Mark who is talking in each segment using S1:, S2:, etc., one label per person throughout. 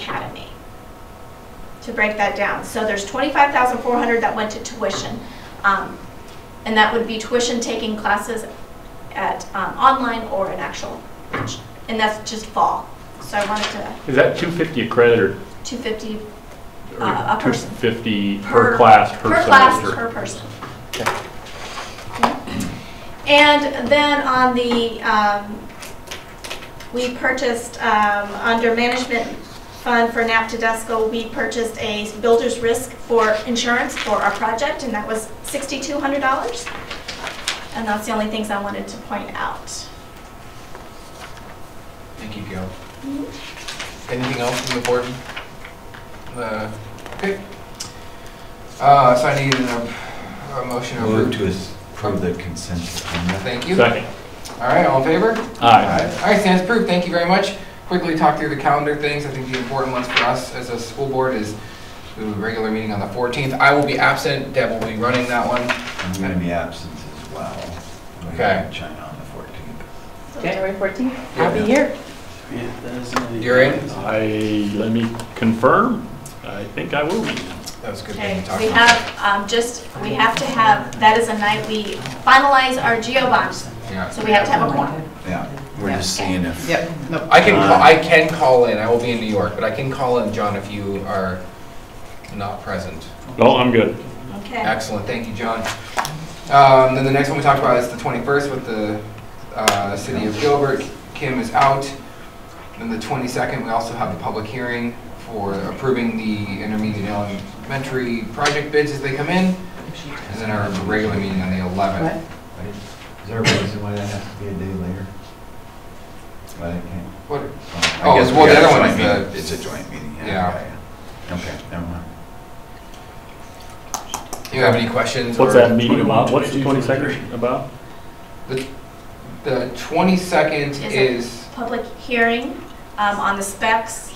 S1: academy. To break that down, so there's twenty-five thousand four hundred that went to tuition. Um, and that would be tuition taking classes at, um, online or an actual, and that's just fall. So I wanted to,
S2: Is that 250 a credit or?
S1: two fifty
S2: or
S1: Uh, a person.
S2: 250 per class, per semester?
S1: Per class, per person. And then on the, um, we purchased, um, under management fund for NAPTDESCO, we purchased a builder's risk for insurance for our project, and that was sixty-two hundred dollars. And that's the only things I wanted to point out.
S3: Thank you, Gail. Anything else from the board? Uh, Okay. Uh, So I need a, a motion to
S4: Move
S3: approve.
S4: to us from the consent agenda.
S3: Thank you. All
S2: Second.
S3: right, all in favor?
S2: Aye.
S3: All right, stands approved. Thank you very much. Quickly talk through the calendar things. I think the important ones for us as a school board is the regular meeting on the 14th. I will be absent. Deb will be running that one.
S4: I'm going to be absent as well. We
S3: Okay.
S4: have China on the
S5: January 14th,
S3: I'll
S5: I'll
S3: be
S5: be here.
S6: Yeah, that is another-
S3: You're in?
S2: I, let me confirm, I think I will be.
S3: That was a good. thing
S1: Okay,
S3: to talk
S1: we
S3: about.
S1: have, um, just, we have to have, that is a night we finalize our geo bonds,
S3: Yeah.
S1: so we have to have a quorum.
S4: 14th. Yeah, we're just seeing if.
S3: Yep. I can, call- I can call in, I will be in New York, but I can call in, John, if you are not present.
S2: No, I'm good.
S1: Okay.
S3: Excellent, thank you, John. Um, Then the next one we talked about is the 21st with the uh, City of Gilbert. Kim is out. Then the 22nd, we also have the public hearing for approving the intermediate and elementary project bids as they come in. And then our regular meeting on the 11th.
S4: Right? Is there a reason why that has to be a day later? Why that can't?
S3: What-
S4: I
S3: Oh,
S4: guess
S3: well,
S4: we
S3: the
S4: got a
S3: other one
S4: joint
S3: is
S4: meeting.
S3: the-
S4: It's a joint meeting,
S3: Yeah.
S4: yeah. yeah, yeah. Okay, never mind.
S3: Do you have any questions?
S2: What's
S3: or-
S2: that meeting about? What's the 22nd about?
S3: The 22nd
S1: Is it-
S3: is.
S1: Public hearing um, on the specs,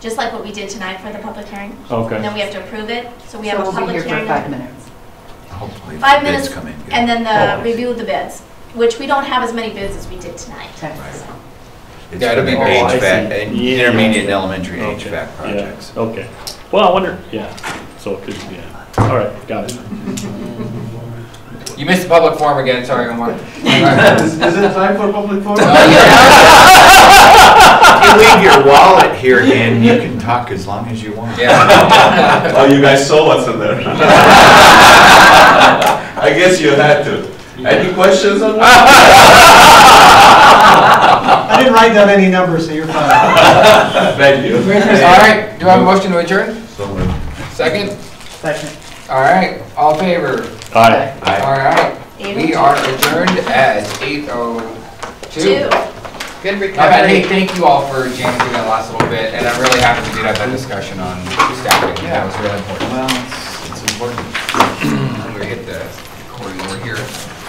S1: just like what we did tonight for the public hearing. And
S2: Okay.
S1: then we have to approve it, so we
S5: So
S1: have a
S5: we'll be
S1: public
S5: here for
S1: hearing.
S5: five
S1: on-
S5: minutes.
S4: Hopefully the
S1: Five
S4: bids
S1: minutes,
S4: come in good.
S1: And then
S2: Oh.
S1: the review of the bids, which we don't have as many bids as we did tonight.
S5: Okay.
S4: It's
S3: Yeah, it'll
S4: for the
S3: be very- Oh, I
S4: HVAC,
S2: see. Yeah.
S4: intermediate and elementary
S2: Okay,
S4: HVAC projects.
S2: Yeah, Okay. Well, I wonder, yeah, so it could, yeah. All right, got it.
S3: You missed the public forum again, sorry, Omar.
S6: Is is it time for public forum?
S4: If you leave your wallet here, and you can talk as long as you want.
S3: Yeah.
S7: Oh, you guys saw what's in there. I guess you had to. Any questions on that?
S6: I didn't write down any numbers, so you're fine.
S7: Thank you.
S3: All right, do I have a motion to adjourn?
S4: So moved.
S3: Second?
S6: Second.
S3: All right, all in favor?
S2: All right.
S3: All
S4: Aye.
S3: right, we
S1: Eight. oh
S3: are adjourned at 8:02.
S1: Two.
S5: Good
S3: All right, hey, thank you all for jamming through that last little bit, and I'm really happy we did have that discussion on staffing. That was really important.
S4: Well, it's- it's important.
S3: I'm gonna hit the recording over here.